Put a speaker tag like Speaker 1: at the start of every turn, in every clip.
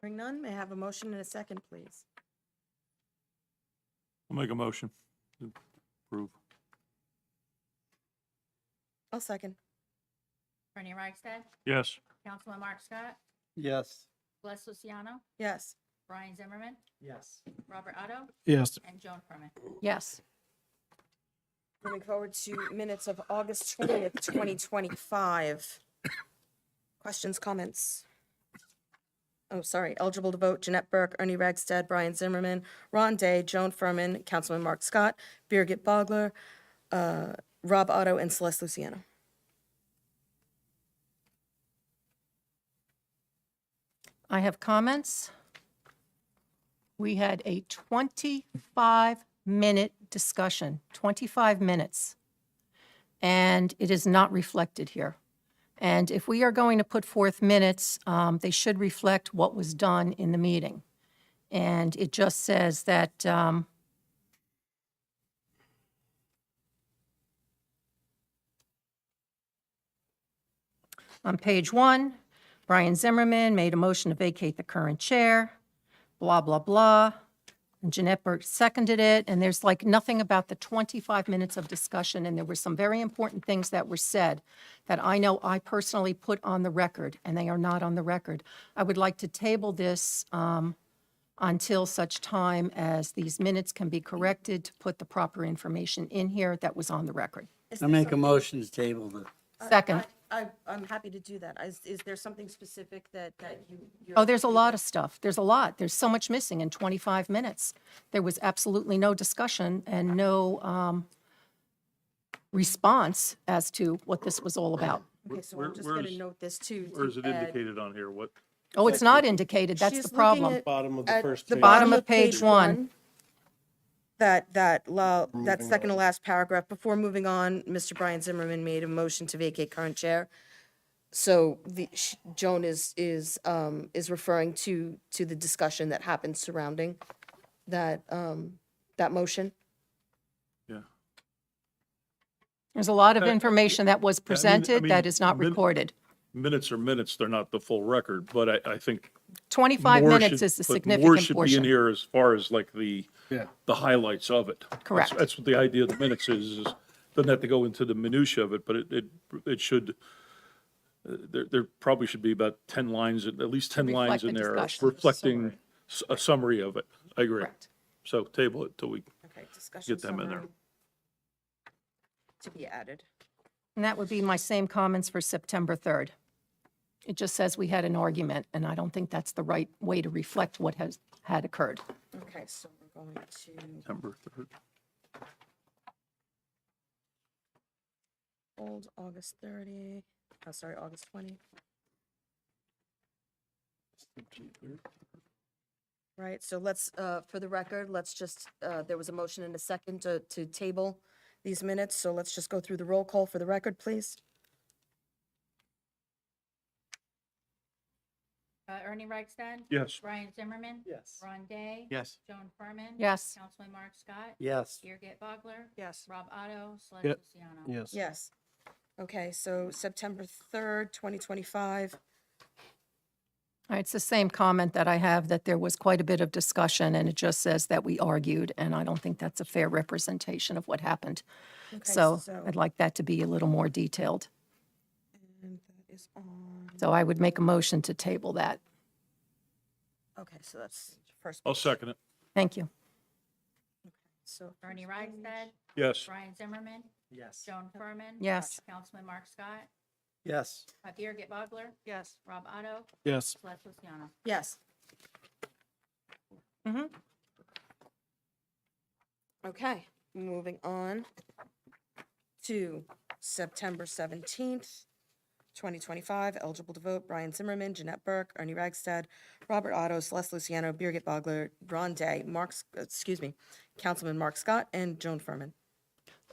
Speaker 1: Hearing none, may I have a motion and a second, please?
Speaker 2: I'll make a motion to approve.
Speaker 1: I'll second.
Speaker 3: Bernie Reichstad,
Speaker 2: Yes,
Speaker 3: Councilman Mark Scott,
Speaker 4: Yes.
Speaker 3: Les Luciano,
Speaker 1: Yes.
Speaker 3: Brian Zimmerman,
Speaker 4: Yes.
Speaker 3: Robert Otto,
Speaker 5: Yes.
Speaker 3: and Joan Furman.
Speaker 6: Yes.
Speaker 1: Moving forward to minutes of August twentieth, twenty twenty-five. Questions, comments? Oh, sorry, eligible to vote, Jeanette Burke, Ernie Ragsdad, Brian Zimmerman, Ron Day, Joan Furman, Councilman Mark Scott, Birgit Bogler, uh, Rob Otto, and Celeste Luciano.
Speaker 6: I have comments. We had a 25-minute discussion, 25 minutes. And it is not reflected here. And if we are going to put forth minutes, um, they should reflect what was done in the meeting. And it just says that, um, On page one, Brian Zimmerman made a motion to vacate the current chair, blah, blah, blah. And Jeanette Burke seconded it, and there's like nothing about the 25 minutes of discussion, and there were some very important things that were said that I know I personally put on the record, and they are not on the record. I would like to table this um, until such time as these minutes can be corrected to put the proper information in here that was on the record.
Speaker 4: I make a motion to table the,
Speaker 6: Second.
Speaker 1: I, I'm happy to do that. Is, is there something specific that, that you? you're-
Speaker 6: Oh, there's a lot of stuff. There's a lot. There's so much missing in 25 minutes. There was absolutely no discussion and no um, response as to what this was all about.
Speaker 1: Okay, so
Speaker 2: Where-
Speaker 1: I'm just gonna
Speaker 2: where's-
Speaker 1: note this too.
Speaker 2: or is it
Speaker 1: to add-
Speaker 2: indicated on here? What?
Speaker 6: Oh, it's not indicated. That's
Speaker 1: She's
Speaker 6: the
Speaker 1: looking
Speaker 6: problem.
Speaker 1: at-
Speaker 5: Bottom of the
Speaker 1: at
Speaker 5: first
Speaker 1: the
Speaker 5: page.
Speaker 6: bottom of page one.
Speaker 1: That, that, la- that second to last paragraph, before moving on, Mr. Brian Zimmerman made a motion to vacate current chair. So the, sh- Joan is, is, um, is referring to, to the discussion that happened surrounding that, um, that motion.
Speaker 2: Yeah.
Speaker 6: There's a lot of
Speaker 2: Uh, yeah,
Speaker 6: information that was
Speaker 2: I mean- I
Speaker 6: presented that
Speaker 2: mean,
Speaker 6: is not
Speaker 2: min-
Speaker 6: recorded.
Speaker 2: Minutes are minutes, they're not the full record, but I, I think.
Speaker 6: 25
Speaker 2: more
Speaker 6: minutes
Speaker 2: should-
Speaker 6: is the
Speaker 2: but
Speaker 6: significant
Speaker 2: More should be in
Speaker 6: portion.
Speaker 2: here as far as like the, the highlights of it. That's-
Speaker 6: Correct.
Speaker 2: That's what the idea of the minutes is, is doesn't have to go into the minutia of it, but it, it, it should, uh, there, there probably should be about 10 lines, at least 10 lines
Speaker 6: Reflect
Speaker 2: in
Speaker 6: the
Speaker 2: there
Speaker 6: discussion.
Speaker 2: reflecting s- a summary of it. I agree.
Speaker 6: Correct.
Speaker 2: So table it till we
Speaker 1: Okay, discussion.
Speaker 2: get them in there.
Speaker 1: To be added.
Speaker 6: And that would be my same comments for September 3rd. It just says we had an argument, and I don't think that's the right way to reflect what has, had occurred.
Speaker 1: Okay, so we're going to
Speaker 2: September 3rd.
Speaker 1: hold August 30, oh, sorry, August 20. Right, so let's, uh, for the record, let's just, uh, there was a motion and a second to, to table these minutes, so let's just go through the roll call for the record, please.
Speaker 3: Uh, Ernie Reichstad,
Speaker 2: Yes.
Speaker 3: Brian Zimmerman,
Speaker 4: Yes.
Speaker 3: Ron Day,
Speaker 5: Yes.
Speaker 3: Joan Furman.
Speaker 6: Yes.
Speaker 3: Councilman Mark Scott,
Speaker 4: yes.
Speaker 3: Birgit Bogler,
Speaker 1: Yes.
Speaker 3: Rob Otto, Celeste
Speaker 5: Yep.
Speaker 3: Luciano.
Speaker 5: Yes.
Speaker 1: Yes. Okay, so September 3rd, 2025,
Speaker 6: All right, It's the same comment that I have, that there was quite a bit of discussion, and it just says that we argued, and I don't think that's a fair representation of what happened.
Speaker 1: Okay,
Speaker 6: So
Speaker 1: so-
Speaker 6: I'd like that to be a little more detailed.
Speaker 1: and that is on,
Speaker 6: So I would make a motion to table that.
Speaker 1: okay, so that's first.
Speaker 2: I'll
Speaker 1: page.
Speaker 2: second it.
Speaker 6: Thank you.
Speaker 1: So.
Speaker 3: Ernie
Speaker 1: first page.
Speaker 3: Reichstad,
Speaker 2: Yes.
Speaker 3: Brian Zimmerman,
Speaker 4: Yes.
Speaker 3: Joan Furman.
Speaker 6: Yes.
Speaker 3: Councilman Mark Scott,
Speaker 4: Yes.
Speaker 3: uh, Birgit Bogler,
Speaker 1: Yes.
Speaker 3: Rob Otto,
Speaker 5: Yes.
Speaker 3: Celeste Luciano.
Speaker 1: Yes. Mm-hmm.
Speaker 6: Mhm.
Speaker 1: Okay, moving on to September 17th, 2025, eligible to vote, Brian Zimmerman, Jeanette Burke, Ernie Ragsted, Robert Otto, Celeste Luciano, Birgit Bogler, Ron Day, Mark, S- excuse me, Councilman Mark Scott, and Joan Furman.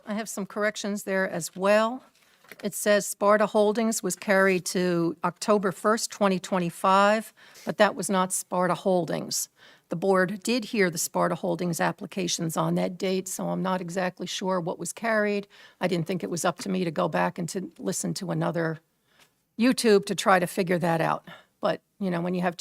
Speaker 6: I have some corrections there as well. It says Sparta Holdings was carried to October 1st, 2025, but that was not Sparta Holdings. The board did hear the Sparta Holdings applications on that date, so I'm not exactly sure what was carried. I didn't think it was up to me to go back and to listen to another YouTube to try to figure that out. But, you know, when you have